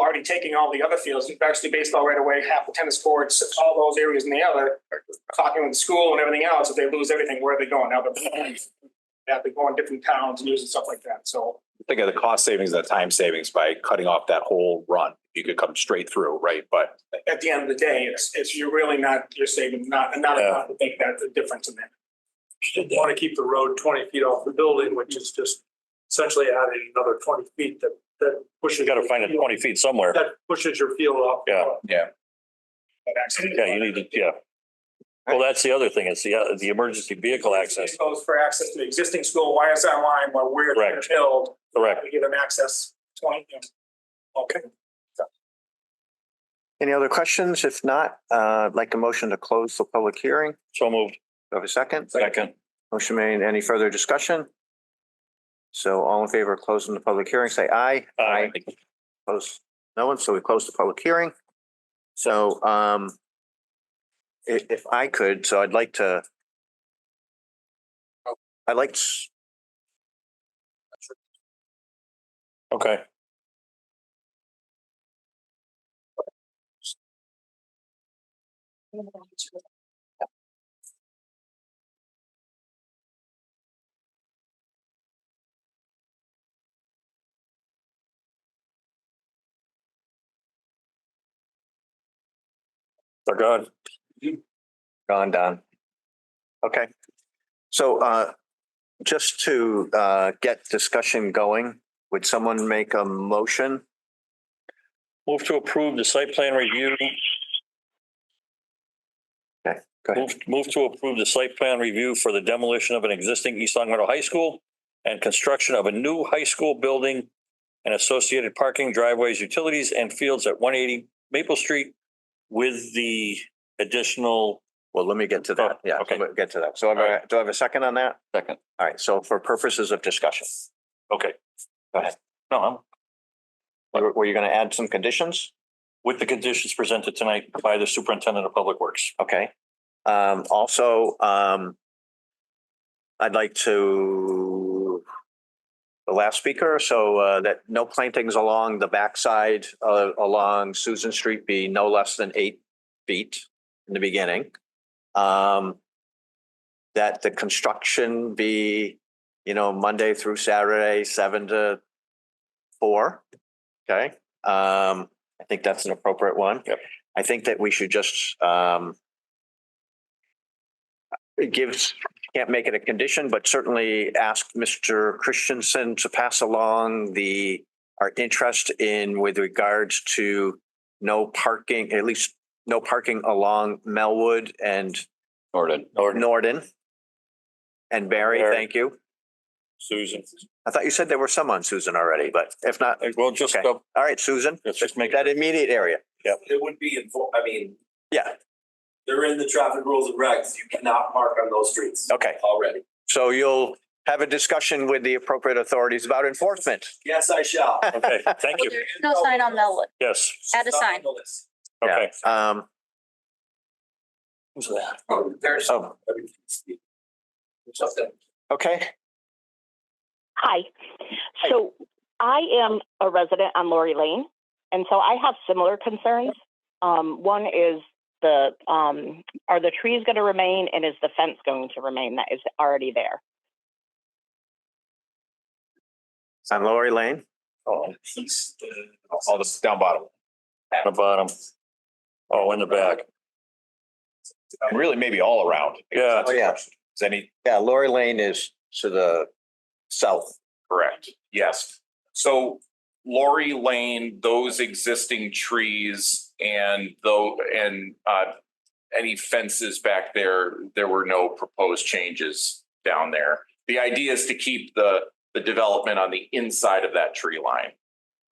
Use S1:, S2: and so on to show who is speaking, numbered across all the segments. S1: already taking all the other fields, actually baseball right away, half the tennis courts, all those areas and the other, talking with school and everything else, if they lose everything, where are they going? Now they're, yeah, they're going different towns and using stuff like that, so.
S2: think of the cost savings and the time savings by cutting off that whole run. You could come straight through, right? But
S1: at the end of the day, it's, it's, you're really not, you're saving not, not
S3: Yeah.
S1: enough to make that the difference in that.
S3: Should
S4: want to keep the road twenty feet off the building, which is just essentially adding another twenty feet that, that pushes.
S3: You gotta find it twenty feet somewhere.
S4: That pushes your field off.
S3: Yeah.
S1: that accident.
S3: Yeah, you need to, yeah. Well, that's the other thing. It's the, uh, the emergency vehicle access.
S1: It goes for access to the existing school, why is that line while we're
S3: Correct.
S1: build,
S3: Correct.
S1: we give them access twenty, you know. okay.
S5: Any other questions? If not, uh, I'd like a motion to close the public hearing. Do
S3: So moved.
S5: I have a second?
S3: Second.
S5: Motion made. Any further discussion? So all in favor of closing the public hearing, say aye.
S3: Aye.
S5: Opposed? No one. So we close the public hearing. So um, i- if I could, so I'd like to I'd like s-
S3: Okay. They're gone.
S5: Gone, Don. Okay. So uh, just to uh, get discussion going, would someone make a motion?
S3: Move to approve the site plan review.
S5: Okay, go ahead.
S3: Move, move to approve the site plan review for the demolition of an existing East Long Meadow High School and construction of a new high school building and associated parking driveways, utilities and fields at one eighty Maple Street with the additional,
S5: Well, let me get to that.
S3: Oh,
S5: Yeah,
S3: okay.
S5: we'll get to that. So I'm gonna- do I have a second on that?
S3: Second.
S5: All right. So for purposes of discussion,
S3: okay. Go ahead. No, I'm
S5: were were you going to add some conditions?
S3: with the conditions presented tonight by the superintendent of public works.
S5: Okay. Um, Also, um, I'd like to the last speaker, so uh, that no plantings along the backside uh, along Susan Street be no less than eight feet in the beginning. Um, That the construction be, you know, Monday through Saturday, seven to four. Okay, um, I think that's an appropriate one.
S3: Yep.
S5: I think that we should just um it gives can't make it a condition, but certainly ask Mr. Christensen to pass along the, our interest in with regards to no parking, at least no parking along Melwood and
S3: Norden. Norden,
S5: Norden. And Barry,
S3: Barry.
S5: thank you.
S3: Susan.
S5: I thought you said there were some on Susan already, but if not,
S3: Well, just,
S5: Okay. all right, Susan,
S3: let's just make,
S5: that immediate area.
S6: It would be, invo- I mean,
S5: Yeah,
S6: they're in the traffic rules and regs. You cannot park on those streets
S5: okay.
S6: already.
S5: So you'll have a discussion with the appropriate authorities about enforcement.
S6: Yes, I shall.
S3: okay, thank you.
S7: No sign on Melwood.
S3: Yes,
S7: Add a
S6: Not
S7: sign.
S6: on the list.
S3: okay.
S5: Yeah, Um,
S3: Who's that?
S6: Oh, There's.
S5: Oh.
S6: Something.
S5: okay,
S8: Hi. So I am a resident on Lori Lane, and so I have similar concerns. Um, one is the um, are the trees going to remain, and is the fence going to remain that is already there?
S5: on Lori Lane.
S3: Oh,
S2: um, all the down bottom.
S3: at the bottom. Oh, in the back.
S2: And really maybe all around.
S3: Yeah.
S5: Oh, yeah.
S2: Is any,
S5: Yeah, Lori Lane is to the south.
S2: correct, yes. So Lori Lane, those existing trees and though, and uh, any fences back there, there were no proposed changes down there. The idea is to keep the, the development on the inside of that tree line.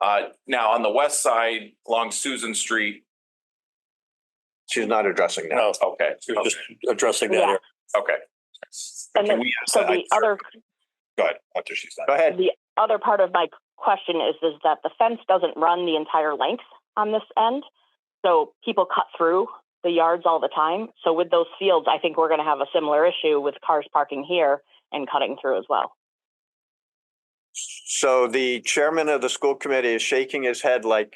S2: Uh, now, on the west side, along Susan Street,
S5: She's not addressing that.
S3: No,
S2: okay,
S3: you're just addressing that. area.
S2: okay.
S8: And
S2: Can
S8: the-
S2: we ask
S8: so
S2: that?
S8: the
S2: I'm sorry.
S8: other
S2: Go ahead, after she's done.
S5: Go ahead.
S8: the other part of my question is is that the fence doesn't run the entire length on this end, so people cut through the yards all the time. So with those fields, I think we're going to have a similar issue with cars parking here and cutting through as well.
S5: So the chairman of the school committee is shaking his head like